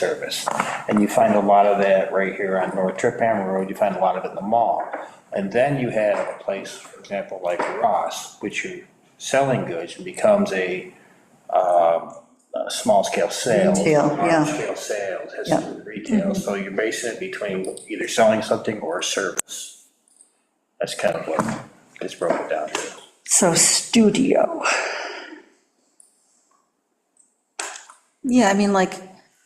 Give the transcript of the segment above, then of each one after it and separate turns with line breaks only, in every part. service. And you find a lot of that right here on North Trip Hammer Road, you find a lot of it in the mall. And then you have a place, for example, like Ross, which you're selling goods and becomes a, um, a small scale sale.
Retail, yeah. Mm-hmm.
large Scale sales, has to do with retail, so you're basing it between either selling something or a service. That's kind of what it's broken down to.
So studio.
Yeah, I mean, like,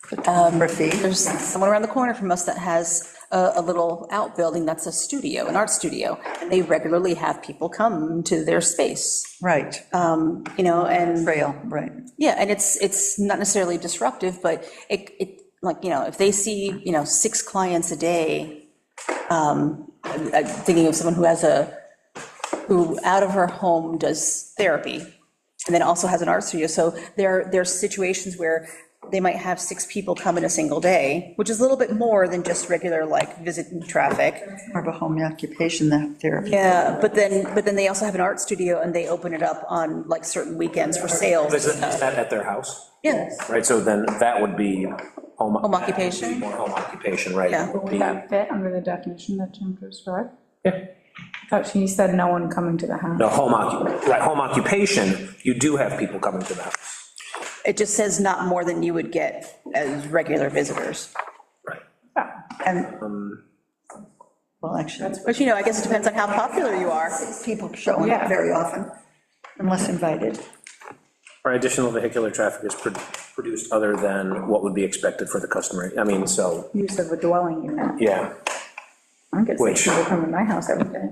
Photography.
there's someone around the corner from us that has a, a little outbuilding that's a studio, an art studio, and they regularly have people come to their space,
Right,
you know, and,
trail, right.
yeah, and it's, it's not necessarily disruptive, but it, it, like, you know, if they see, you know, six clients a day, um, I'm I'm thinking of someone who has a, who out of her home does therapy, and then also has an art studio, so there, there's situations where they might have six people come in a single day, which is a little bit more than just regular, like, visit and traffic.
More of a home occupation than therapy.
Yeah, but then, but then they also have an art studio, and they open it up on, like, certain weekends for sales.
Is it- is that at their house?
Yes.
Right, so then that would be home.
Home occupation?
More home occupation, right?
Yeah.
would
Would
be-
that fit under the definition that Jim just read?
Yeah.
I Thought she said no one coming to the house.
No, home occup, right, home occupation, you do have people coming to the house.
It just says not more than you would get as regular visitors.
Right.
Oh,
And, well, actually,
But you know, I guess it depends on how popular you are.
people showing up
Yeah.
very often, unless invited.
Or additional vehicular traffic is pro- produced other than what would be expected for the customer, I mean, so,
Use of a dwelling unit.
yeah.
I don't get
Which-
six people coming to my house every day.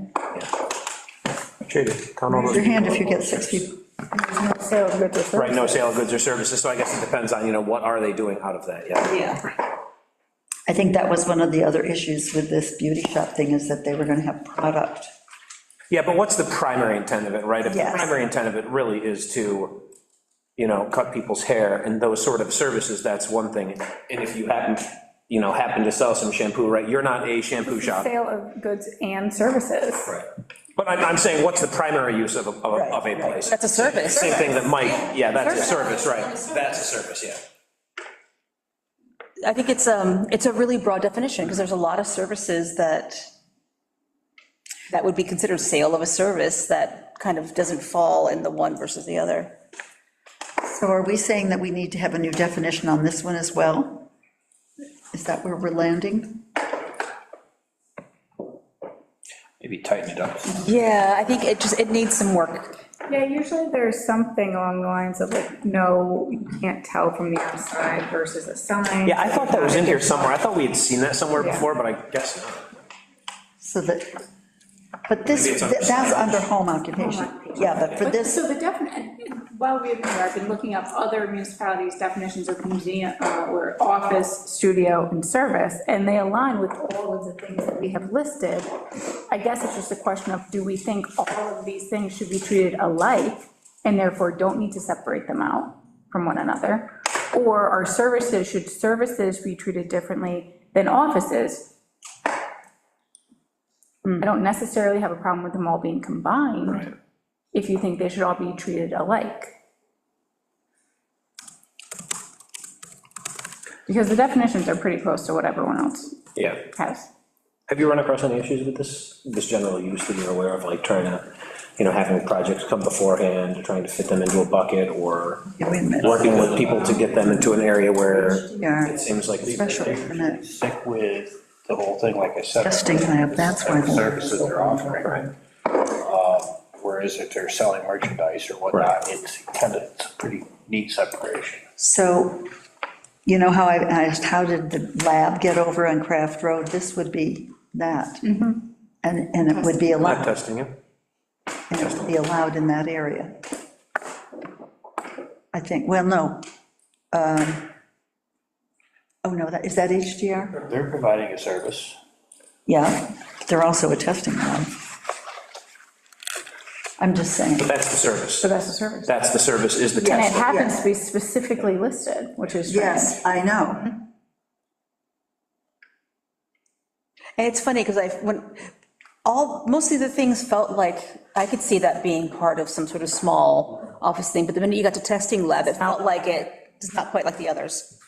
Jada, count all
Raise your
those.
hand if you get six people.
There's no sale of goods or services.
Right, no sale of goods or services, so I guess it depends on, you know, what are they doing out of that, yeah.
Yeah.
I think that was one of the other issues with this beauty shop thing, is that they were gonna have product.
Yeah, but what's the primary intent of it, right? If the
Yes.
primary intent of it really is to, you know, cut people's hair and those sort of services, that's one thing. And if you happen, you know, happen to sell some shampoo, right, you're not a shampoo shop.
Sale of goods and services.
Right. But I'm, I'm saying, what's the primary use of, a- of a- of a
Right, right.
place?
That's a service.
Same thing that Mike, yeah, that's a service, right, that's a service, yeah.
I think it's, um, it's a really broad definition, because there's a lot of services that, that would be considered sale of a service that kind of doesn't fall in the one versus the other.
So are we saying that we need to have a new definition on this one as well? Is that where we're landing?
Maybe tighten it up.
Yeah, I think it just, it needs some work.
Yeah, usually there's something along the lines of like, no, you can't tell from the outside versus a sign.
Yeah, I thought that was in here somewhere, I thought we had seen that somewhere
Yeah.
before, but I guess not.
So that, but this,
Maybe it's under-
that's under home occupation. Yeah, but for
But
this,
so the definite, while we've been here, I've been looking up other municipalities' definitions of museum, uh, or office, studio, and service, and they align with all of the things that we have listed. I guess it's just a question of, do we think all of these things should be treated alike, and therefore don't need to separate them out from one another? Or are services, should services be treated differently than offices? I don't necessarily have a problem with them all being combined if you think they should all be treated alike. Because the definitions are pretty close to what everyone else
Yeah.
has.
Have you run across any issues with this, this general use that you're aware of, like trying to, you know, having projects come beforehand, trying to fit them into a bucket, or
Yeah, wait a minute.
working with people to get them into an area where
Yeah.
it seems like.
special permit,
Stick with the whole thing, like I said.
Testing lab, that's why-
Services they're offering. Um, Whereas if they're selling merchandise or whatnot, it's kind of, it's a pretty neat separation.
So, you know how I asked, how did the lab get over on Craft Road? This would be that. And, and it would be
Not
allowed,
testing you.
and it would be allowed in that area. I think, well, no. Um, Oh, no, that, is that HDR?
They're providing a service.
Yeah, they're also a testing lab. I'm just saying,
That's the service.
So that's a service.
That's the service, is the
And it
test.
happens to be specifically listed, which is strange.
yes, I know.
And it's funny, because I, when, all, most of the things felt like, I could see that being part of some sort of small office thing, but the minute you got to testing lab, it felt like it, it's not quite like the others.